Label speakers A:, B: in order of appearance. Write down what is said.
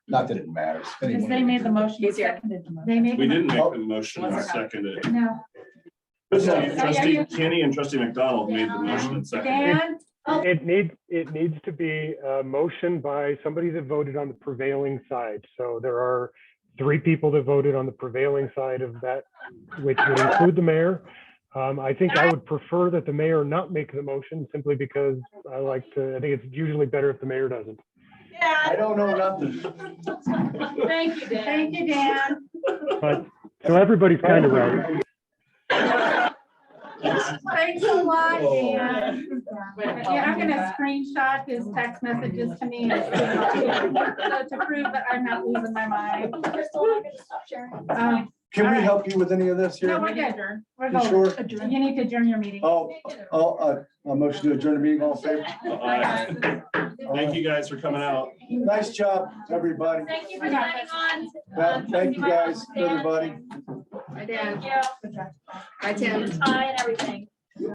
A: Not that it matters.
B: Because they made the motion, you
C: Easier.
B: seconded the motion.
D: They made.
E: We didn't make
A: Oh.
E: the motion, I seconded it.
D: No.
E: Trustee trustee Kenny and trustee McDonald made the motion and seconded. it.
B: Dan,
F: It needs, it needs to be a motion by somebody that voted on the prevailing side. So there are three people that voted on the prevailing side of that, which would include the mayor. Um, I think I would prefer that the mayor not make the motion simply because I like to, I think it's usually better if the mayor doesn't.
A: I don't know nothing.
C: Thank you, Dan.
D: Thank you, Dan.
F: But, so everybody's kind of right.
D: Thanks a lot,
A: Oh.
D: Dan. Yeah, I'm gonna screenshot his text messages to me. and send it to him, So to prove that I'm not losing my mind. Um,
A: Can we help you with any of this
D: No,
A: here?
D: we're good. We're
A: You
D: going.
A: sure?
D: You need to adjourn your meeting.
A: Oh, oh, uh, a motion to adjourn the meeting, all in favor?
E: Uh, Thank you guys for coming out.
A: Nice job, everybody.
C: Thank you for coming on. Um,
A: Well, Thank you guys, everybody.
C: Thank you.
D: Good job.
C: Hi, and everything.